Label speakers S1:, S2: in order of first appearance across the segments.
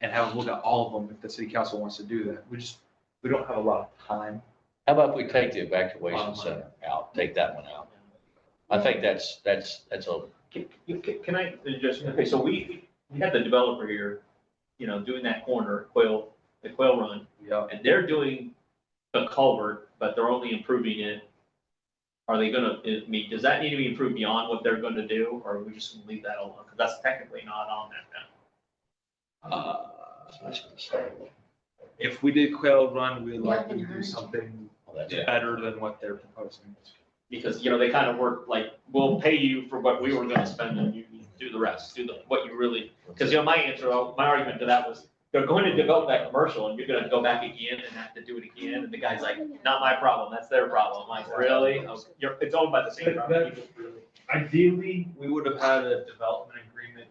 S1: and have a look at all of them if the city council wants to do that. We just, we don't have a lot of time.
S2: How about we take the
S1: Bottom
S2: evacuation
S1: line.
S2: center out, take that one out? I think that's, that's, that's a,
S3: Can, can- can I just, okay, so we, we have the developer here, you know, doing that corner, Quail, the Quail Run,
S1: Yeah.
S3: and they're doing a culvert, but they're only improving it. Are they gonna, I mean, does that need to be improved beyond what they're gonna do, or are we just gonna leave that alone? Because that's technically not on that now.
S1: Uh, If we did Quail Run, we'd like to do something
S2: well, that's-
S1: better than what they're proposing.
S3: Because, you know, they kind of work like, we'll pay you for what we were gonna spend and you do the rest, do the, what you really Because, you know, my answer, uh, my argument to that was, they're going to develop that commercial and you're gonna go back again and have to do it again. And the guy's like, not my problem, that's their problem. I'm like, really? Oh, You're, it's owned by the same property. people.
S1: Ideally, we would have had a development agreement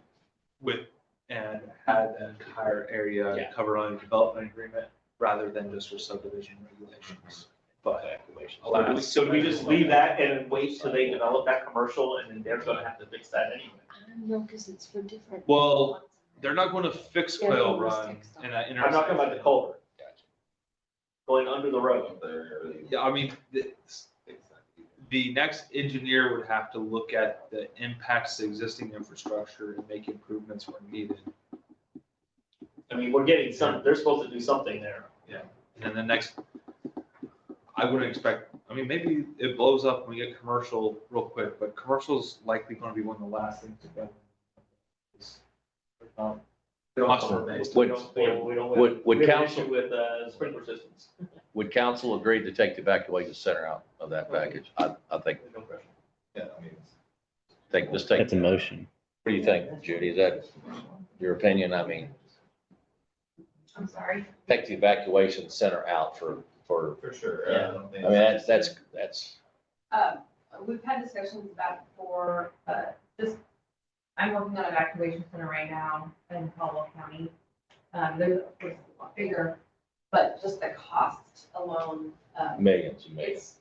S1: with, and had the entire area
S3: Yeah.
S1: covered on a development agreement rather than just with subdivision regulations. But
S2: evacuation.
S3: So do we- So do we just leave that and wait till they develop that commercial and then they're gonna have to fix that anyway?
S4: I don't know, because it's for different.
S1: Well, they're not going to fix
S4: Yeah,
S1: Quail
S4: they must
S1: Run
S4: fix
S1: in that
S3: I'm not talking about the
S1: intersection.
S3: culvert. Going under the road.
S1: Yeah, I mean, the, the next engineer would have to look at the impacts to existing infrastructure and make improvements where needed.
S3: I mean, we're getting some, they're supposed to do something there.
S1: And then the next, I wouldn't expect, I mean, maybe it blows up when we get commercial real quick, but commercial's likely gonna be one of the last things. to go. Um,
S3: We don't-
S1: Awesome.
S3: We don't, we don't- we don't.
S2: Would- would
S3: We have an
S2: council-
S3: issue With, uh, sprinkler systems.
S2: Would council agree to take the evacuation center out of that package? I, I think,
S3: No pressure.
S2: take, just take.
S5: That's a motion.
S2: What do you think, Judy? Is that your opinion? I mean,
S4: I'm sorry.
S2: take the evacuation center out for, for,
S6: For sure.
S3: Yeah.
S6: I don't
S2: I
S6: think-
S2: mean, that's, that's, that's,
S7: Um, We've had discussions about it before, but this, I'm working on an evacuation center right now in Caldwell County. Um, There's, of course, a lot bigger, but just the cost alone, um,
S2: millions and millions.
S7: it's,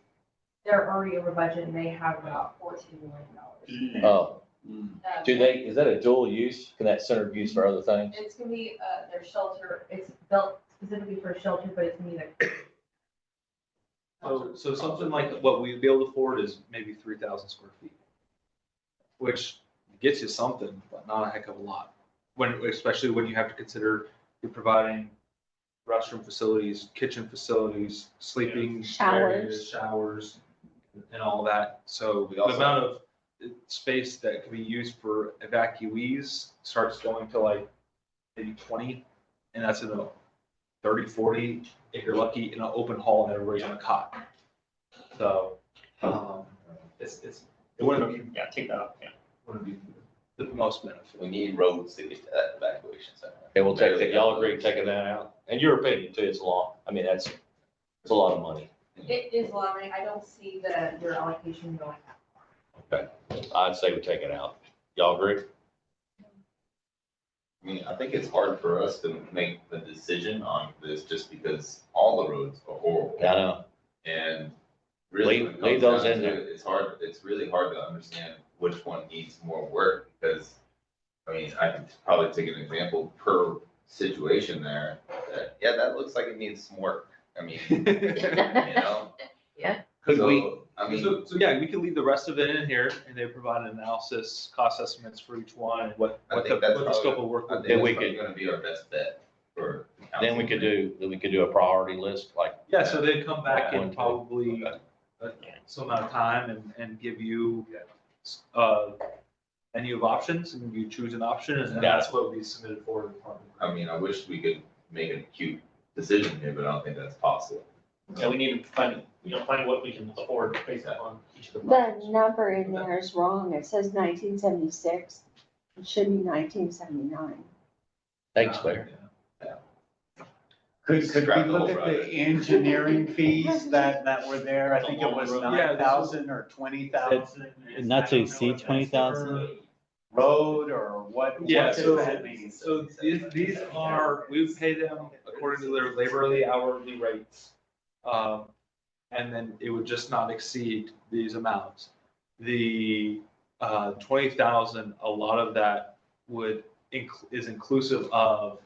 S7: they're already over budget and they have about fourteen million dollars.
S2: Oh,
S7: Um,
S2: do they, is that a dual use? Can that center be used for other things?
S7: It's gonna be, uh, their shelter, it's built specifically for shelter, but it's gonna be like.
S1: So, so something like what we'd be able to afford is maybe three thousand square feet. Which gets you something, but not a heck of a lot. When, especially when you have to consider you're providing restroom facilities, kitchen facilities, sleeping areas, showers, and all that. So
S6: We
S1: the
S6: also-
S1: amount of uh, space that could be used for evacuees starts going to like maybe twenty, and that's in a 30, 40 if you're lucky, in an open hall and everybody's on a cot. So, um, it's, it's, it wouldn't be,
S3: Yeah, take that out, yeah.
S1: wouldn't be the most benefit.
S6: We need roads to get to that evacuation center.
S2: Okay, we'll take that. Y'all agree taking that out? And your opinion too, it's a lot. I mean, that's, it's a lot of money.
S7: It is a lot of money. I don't see the, your allocation going up.
S2: Okay, I'd say we take it out. Y'all agree?
S6: I mean, I think it's hard for us to make the decision on this just because all the roads are horrible.
S2: I know.
S6: And really.
S2: Leave-
S6: when it
S2: leave those
S6: comes down
S2: in
S6: to
S2: there.
S6: it, It's hard, it's really hard to understand which one needs more work because, I mean, I could probably take an example per situation there. that, Yeah, that looks like it needs some work. I mean, you know?
S1: Could we,
S6: So, I mean.
S1: so, so yeah, we could leave the rest of it in here and they provide an analysis, cost estimates for each one and what,
S6: I
S1: what the,
S6: think that's
S1: what the scope of work
S6: I
S1: would
S6: think
S1: be.
S2: Then we
S6: that's probably
S2: could-
S6: Gonna be our best bet for.
S2: Then we could do, then we could do a priority list, like,
S1: Yeah, so they'd come back in probably
S2: Okay.
S1: uh, some amount of time and, and give you, uh, menu of options and you choose an option and then
S2: Got it.
S1: that's what would be submitted for the department.
S6: I mean, I wish we could make a cute decision here, but I don't think that's possible.
S3: Yeah, we need to find, you know, find what we can afford based on each of the
S4: The
S3: projects.
S4: number in there is wrong. It says nineteen seventy-six. It should be nineteen seventy-nine.
S2: thanks, Mayor.
S8: Could, could we
S6: Scrap the
S8: look
S6: whole
S8: at the
S6: project.
S8: engineering fees that, that were there? I think it was
S3: Yeah, this
S1: was-
S8: nine thousand or twenty thousand.
S5: Not to exceed twenty thousand?
S8: Road or what? what
S1: Yeah,
S8: does
S1: so-
S8: that mean?
S1: So these, these are, we pay them according to their laborly hourly rates. Um, and then it would just not exceed these amounts. The, uh, twenty thousand, a lot of that would, inc- is inclusive of